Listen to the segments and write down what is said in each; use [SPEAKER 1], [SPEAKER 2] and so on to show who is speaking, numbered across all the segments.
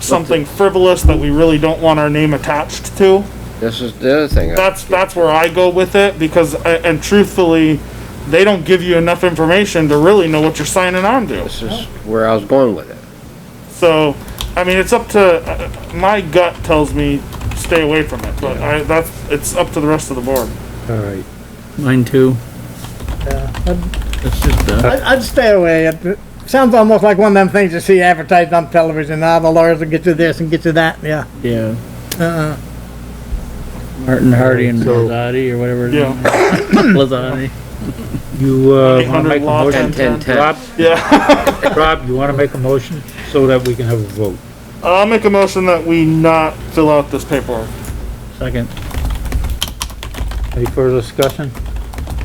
[SPEAKER 1] something frivolous that we really don't want our name attached to.
[SPEAKER 2] This is the other thing.
[SPEAKER 1] That's, that's where I go with it, because, I- and truthfully, they don't give you enough information to really know what you're signing on to.
[SPEAKER 2] This is where I was going with it.
[SPEAKER 1] So, I mean, it's up to, uh, my gut tells me stay away from it, but I, that's, it's up to the rest of the board.
[SPEAKER 3] All right.
[SPEAKER 4] Mine too.
[SPEAKER 5] Yeah, I'd-
[SPEAKER 4] It's just, uh,
[SPEAKER 5] I'd, I'd stay away. It it sounds almost like one of them things you see advertised on television. Ah, the lawyers will get you this and get you that. Yeah.
[SPEAKER 4] yeah,
[SPEAKER 5] Uh-uh.
[SPEAKER 4] Martin Hardy and
[SPEAKER 3] So-
[SPEAKER 4] Blazati or whatever. his
[SPEAKER 1] Yeah.
[SPEAKER 4] name is. Blazati.
[SPEAKER 3] You, uh, wanna
[SPEAKER 1] 800
[SPEAKER 3] make a
[SPEAKER 1] law
[SPEAKER 3] motion?
[SPEAKER 2] Ten, ten, ten.
[SPEAKER 3] Rob,
[SPEAKER 1] Yeah,
[SPEAKER 3] Rob, you wanna make a motion so that we can have a vote?
[SPEAKER 1] I'll make a motion that we not fill out this paperwork.
[SPEAKER 4] Second.
[SPEAKER 3] Any further discussion?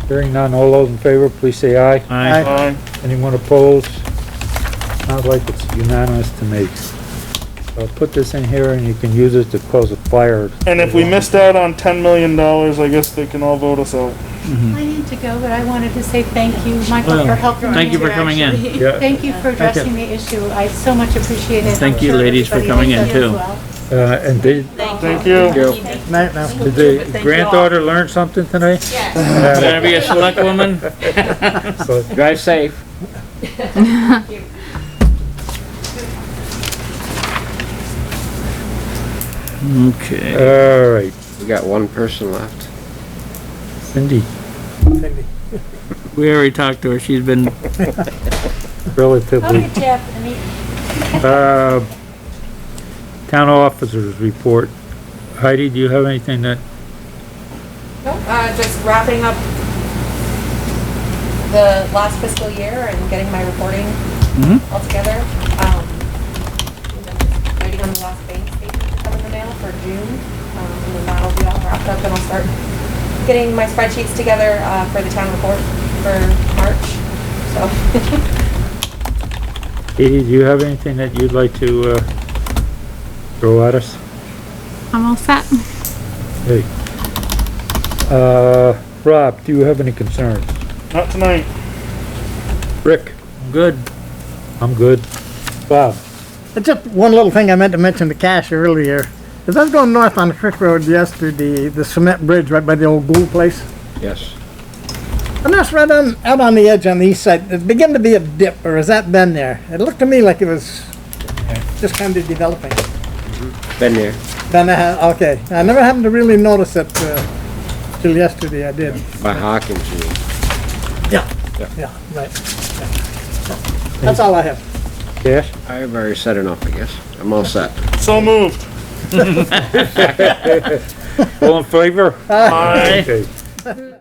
[SPEAKER 3] Hearing none, all those in favor, please say aye.
[SPEAKER 4] Aye.
[SPEAKER 1] Aye.
[SPEAKER 3] Anyone opposed? Sounds like it's unanimous to me. I'll put this in here and you can use it to cause a fire.
[SPEAKER 1] And if we missed out on ten million dollars, I guess they can all vote us out.
[SPEAKER 6] I need to go, but I wanted to say thank you, Michael, for
[SPEAKER 4] Well,
[SPEAKER 6] helping me.
[SPEAKER 4] thank you for coming in.
[SPEAKER 6] actually.
[SPEAKER 3] Yeah.
[SPEAKER 6] Thank you for addressing the issue. I so much appreciate it.
[SPEAKER 4] Thank
[SPEAKER 6] I'm
[SPEAKER 4] you,
[SPEAKER 6] sure
[SPEAKER 4] ladies, for
[SPEAKER 6] everybody
[SPEAKER 4] coming
[SPEAKER 6] else
[SPEAKER 4] in,
[SPEAKER 6] does
[SPEAKER 4] too.
[SPEAKER 6] well.
[SPEAKER 3] Uh, and did,
[SPEAKER 1] Thank you.
[SPEAKER 2] Go.
[SPEAKER 5] Night now.
[SPEAKER 3] did the granddaughter learn something tonight?
[SPEAKER 4] Gonna be a select woman?
[SPEAKER 3] So,
[SPEAKER 2] Drive safe.
[SPEAKER 4] Okay.
[SPEAKER 3] All right,
[SPEAKER 2] We got one person left.
[SPEAKER 3] Cindy,
[SPEAKER 4] We already talked to her. She's been,
[SPEAKER 6] I'll
[SPEAKER 3] relatively,
[SPEAKER 6] get you after the meeting.
[SPEAKER 3] uh, town officers report. Heidi, do you have anything that
[SPEAKER 7] Nope, uh, just wrapping up the last fiscal year and getting my reporting
[SPEAKER 4] Mhm.
[SPEAKER 7] all together. Um, and then just Waiting on the last bank statement to come in the mail for June, um, and then that'll be all wrapped up and I'll start getting my spreadsheets together, uh, for the town report for March, so.
[SPEAKER 3] Katie, do you have anything that you'd like to, uh, throw at us?
[SPEAKER 8] I'm all set.
[SPEAKER 3] Hey. Uh, Rob, do you have any concerns?
[SPEAKER 1] Not tonight.
[SPEAKER 3] Rick?
[SPEAKER 4] good.
[SPEAKER 3] I'm good. Bob?
[SPEAKER 5] It's Just one little thing I meant to mention to Cash earlier. As I was going north on Creek Road yesterday, the cement bridge right by the old Gould place,
[SPEAKER 2] Yes.
[SPEAKER 5] and that's right on, out on the edge on the east side, there's beginning to be a dip, or has that been there? It looked to me like it was just kind of developing.
[SPEAKER 2] Been there.
[SPEAKER 5] Then I had, okay, I never happened to really notice it, uh, till yesterday I did.
[SPEAKER 2] By Hawkins. you mean.
[SPEAKER 5] Yeah.
[SPEAKER 2] Yeah.
[SPEAKER 5] Yeah, right. That's all I have.
[SPEAKER 3] Yes?
[SPEAKER 2] I've already said enough, I guess. I'm all set.
[SPEAKER 1] So moved.
[SPEAKER 3] All in favor?
[SPEAKER 1] Aye.
[SPEAKER 3] Okay.